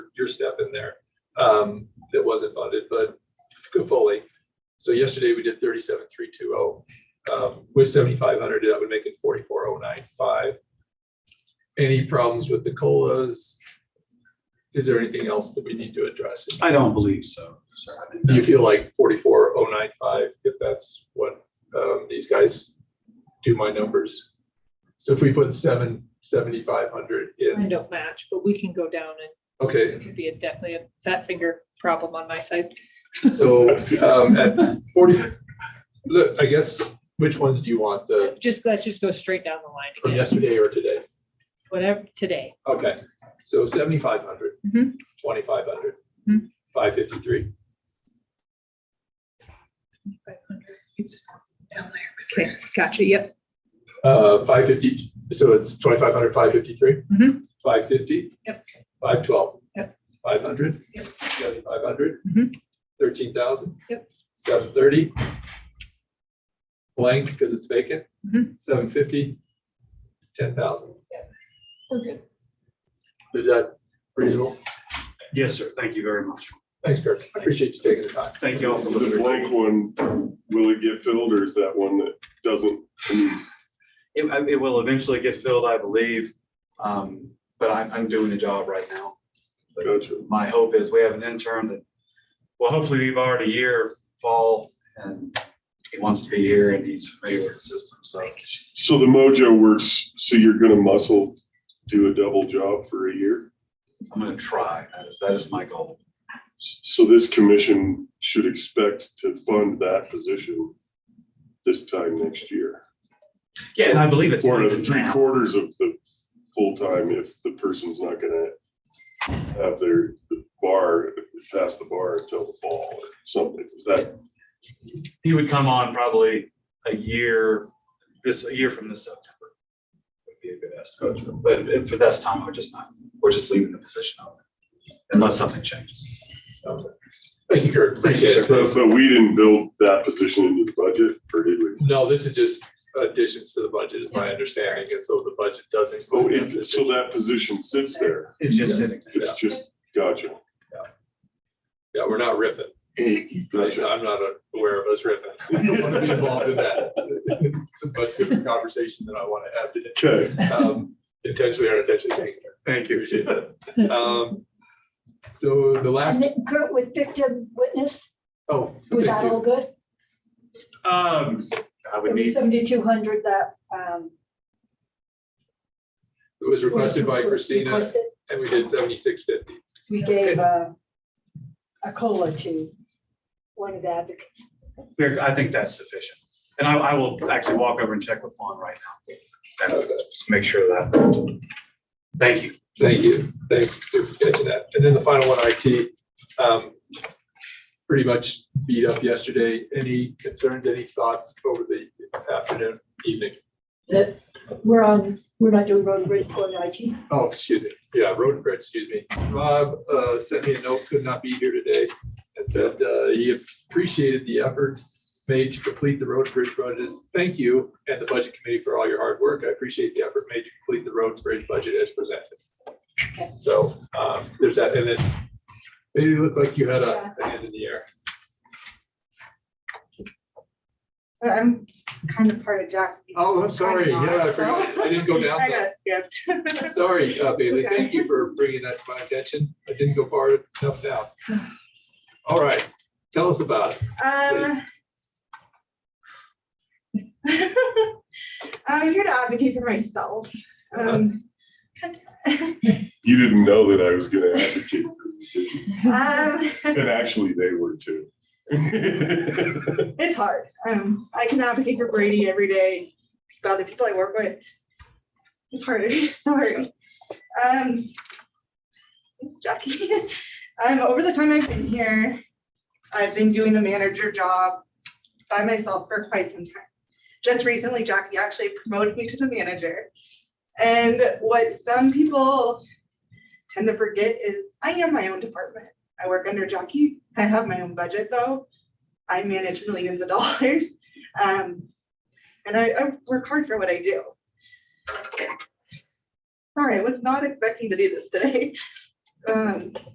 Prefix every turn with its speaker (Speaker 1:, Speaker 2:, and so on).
Speaker 1: your step in there um, that wasn't funded, but fully. So yesterday we did thirty-seven, three, two, oh, um, with seventy-five hundred, that would make it forty-four, oh, nine, five. Any problems with the colas? Is there anything else that we need to address?
Speaker 2: I don't believe so. sir. I think
Speaker 1: Do you
Speaker 2: that-
Speaker 1: feel like forty-four, oh, nine, five, if that's what, um, these guys do my numbers? So if we put seven, seventy-five hundred
Speaker 3: I
Speaker 1: in,
Speaker 3: don't match, but we can go down and
Speaker 1: okay,
Speaker 3: it could be a definitely a fat finger problem on my side.
Speaker 1: so, um, at forty, look, I guess, which ones do you want, the,
Speaker 3: Just, let's just go straight down the line
Speaker 1: from
Speaker 3: again,
Speaker 1: yesterday or today?
Speaker 3: whatever, today.
Speaker 1: Okay, so seventy-five hundred,
Speaker 3: Mhm.
Speaker 1: twenty-five hundred,
Speaker 3: Mhm.
Speaker 1: five fifty-three.
Speaker 3: It's down there. Okay, gotcha, yep.
Speaker 1: Uh, five fifty, so it's twenty-five hundred, five fifty-three?
Speaker 3: Mhm.
Speaker 1: Five fifty?
Speaker 3: Yep.
Speaker 1: Five twelve?
Speaker 3: Yep.
Speaker 1: Five hundred?
Speaker 3: Yep.
Speaker 1: Seventy-five hundred?
Speaker 3: Mhm.
Speaker 1: Thirteen thousand?
Speaker 3: Yep.
Speaker 1: Seven thirty? Blank because it's vacant?
Speaker 3: Mhm.
Speaker 1: Seven fifty? Ten thousand?
Speaker 3: We're good.
Speaker 1: Is that reasonable?
Speaker 2: Yes, sir. Thank you very much.
Speaker 1: Thanks, Kirk. I appreciate you taking the time.
Speaker 2: Thank you all for
Speaker 4: The
Speaker 2: listening.
Speaker 4: blank one, will it get filled or is that one that doesn't? I mean,
Speaker 5: It, I- it will eventually get filled, I believe, um, but I'm, I'm doing the job right now. But
Speaker 4: Gotcha.
Speaker 5: My hope is we have an intern that, well, hopefully we've already year fall and he wants to be here and he's familiar with the system, so.
Speaker 4: So the mojo works, so you're gonna muscle, do a double job for a year?
Speaker 5: I'm gonna try. That is, that is my goal.
Speaker 4: S- So this commission should expect to fund that position this time next year.
Speaker 5: Yeah, and I believe it's.
Speaker 4: Or
Speaker 5: funded
Speaker 4: three
Speaker 5: now.
Speaker 4: quarters of the full time if the person's not gonna have their bar, pass the bar until the fall or something. Is that,
Speaker 5: He would come on probably a year, this, a year from this September. Would be a good estimate, but if- for this time, we're just not, we're just leaving the position open unless something changes.
Speaker 1: Thank you, Kirk.
Speaker 5: Thank you,
Speaker 1: Appreciate
Speaker 5: sir.
Speaker 1: it.
Speaker 4: but we didn't build that position into the budget or did we?
Speaker 1: No, this is just additions to the budget, is my understanding, and so the budget does
Speaker 4: Oh,
Speaker 1: include.
Speaker 4: it- so that position sits there.
Speaker 5: It's just sitting there.
Speaker 4: It's just, gotcha,
Speaker 1: Yeah, we're not riffing.
Speaker 4: gotcha.
Speaker 1: I'm not aware of us riffing. I don't want to be involved in that. It's a much different conversation than I want to have today.
Speaker 4: Okay,
Speaker 1: Um, Intentionally or unintentionally, thanks. Eric.
Speaker 5: Thank you.
Speaker 1: Appreciate that. Um, So the
Speaker 6: And
Speaker 1: last,
Speaker 6: then Kurt was victim witness,
Speaker 1: oh, thank
Speaker 6: was that all
Speaker 1: you.
Speaker 6: good?
Speaker 5: Um, I would
Speaker 6: It was
Speaker 5: need,
Speaker 6: seventy-two hundred that, um.
Speaker 1: It was requested by
Speaker 6: was
Speaker 1: Christina,
Speaker 6: requested.
Speaker 1: and we did seventy-six fifty.
Speaker 6: We gave, uh, a cola to one of the advocates.
Speaker 5: there- I think that's sufficient. And I, I will actually walk over and check with Fawn right now. And just make sure of that. Thank you.
Speaker 1: Thank you. Thanks Sue, for catching that. And then the final one, IT. um, Pretty much beat up yesterday. Any concerns, any thoughts over the afternoon, evening?
Speaker 6: That, we're on, we're not doing road and bridge or IT.
Speaker 1: Oh, excuse me. Yeah, road and bridge, excuse me. Rob uh, sent me a note, could not be here today. And said uh, he appreciated the effort made to complete the road and bridge budget. Thank you and the budget committee for all your hard work. I appreciate the effort made to complete the road and bridge budget as presented. So um, there's that. And then maybe it looked like you had a a hand in the air.
Speaker 7: So I'm kind of part of Jack.
Speaker 1: Oh, I'm sorry.
Speaker 7: I'm not,
Speaker 1: Yeah, I
Speaker 7: so-
Speaker 1: forgot. I didn't go down
Speaker 7: I
Speaker 1: that.
Speaker 7: got skipped.
Speaker 1: Sorry, uh, Bailey,
Speaker 7: Okay.
Speaker 1: thank you for bringing that to my attention. I didn't go far enough down. All right, tell us about it.
Speaker 7: Um. I'm here to advocate for myself. Um,
Speaker 4: you didn't know that I was gonna advocate,
Speaker 1: Uh-huh.
Speaker 7: um,
Speaker 4: and actually they were too.
Speaker 7: it's hard. Um, I can advocate for Brady every day, about the people I work with. It's hard, sorry. Um. Jackie, um, over the time I've been here, I've been doing the manager job by myself for quite some time. Just recently, Jackie actually promoted me to the manager. And what some people tend to forget is I am my own department. I work under Jackie. I have my own budget though. I manage millions of dollars. Um, and I, I work hard for what I do. Sorry, I was not expecting to do this today. Um,